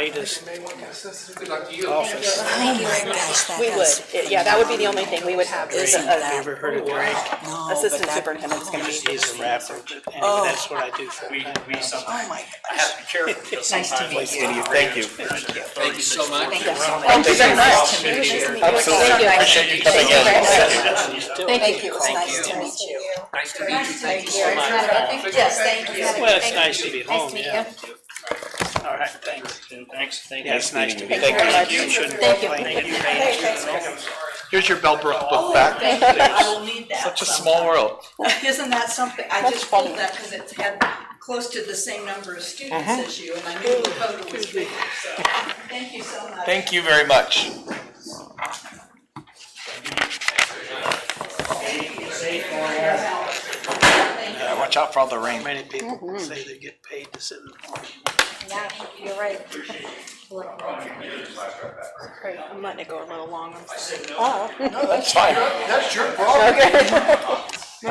latest Good luck to you. office. Oh, Thank you very much. That We would, does- yeah, that would be the only thing we would have is a, Drake, you ever a- heard of Drake? No, but assistant that- superintendent's gonna He be. is a rapper, and that's what I do for We, him. we Oh, sometimes my have to be careful because Nice to sometimes. meet you. Thank you. Thank you so much. Thank you very much. Thank you. Appreciate you coming Thank you very in. much. Thank you. It's nice to meet you. Nice to meet you. Thank you so much. Yes, thank you. Well, it's nice to be home, yeah. All right, thanks, and thanks, thank you. Yeah, it's nice to be. Thank you. home. You shouldn't Thank you. complain. Here's your Bellbrook book back. Thank you, I will need that. Such a small world. Isn't that something, I That's just pulled funny. that because it's had close to the same number of students Uh-huh. as you, and I knew the total was bigger, so, thank you so much. Thank you very much. Yeah, watch out for all the rain. Many people say they get paid to sit in the park. Yeah, you're right. I'm letting it go a little longer. No, that's fine. That's your problem. I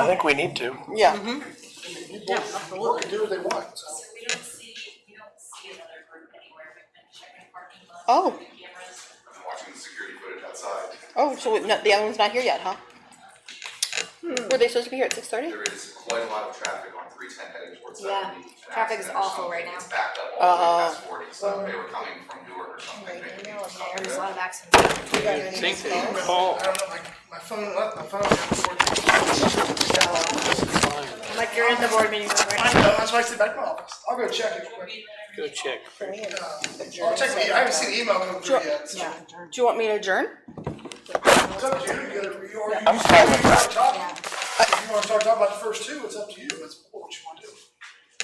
think we need to. Yeah. People can do what they want. so. So we don't see, we don't see another group anywhere. We've been checking parking lots. Oh. Cameras. watching the security footage outside. Oh, so no, the other one's not here yet, huh? Were they supposed to be here at six thirty? There is quite a lot of traffic on three ten heading towards Yeah. seventy. An Traffic is accident or awful something. right now. It's backed up all the way past forty, so they were coming from Newark or something, maybe. There's a lot of accidents. You got I any think calls? they call. I don't know, my, my phone, left- my phone. wasn't working. Like you're in the board meeting room I right know, that's why I sit back in my office. I'll go check it quick. Go check. I'll check the, I haven't seen the email come through yet. so- Do you want me to adjourn? It's up to you, you gotta, you or you. I'm fine with that. If you wanna start talking about the first two, it's up to you, it's what you wanna do.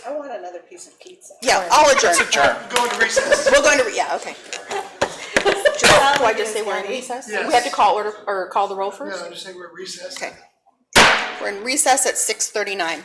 I want another piece of pizza. Yeah, I'll adjourn. Adjourn. Go into recess. We're going to, re- yeah, okay. Do I just say we're in recess? We have to call order, or call the roll No, first? just say we're recessed. Okay. We're in recess at six thirty-nine.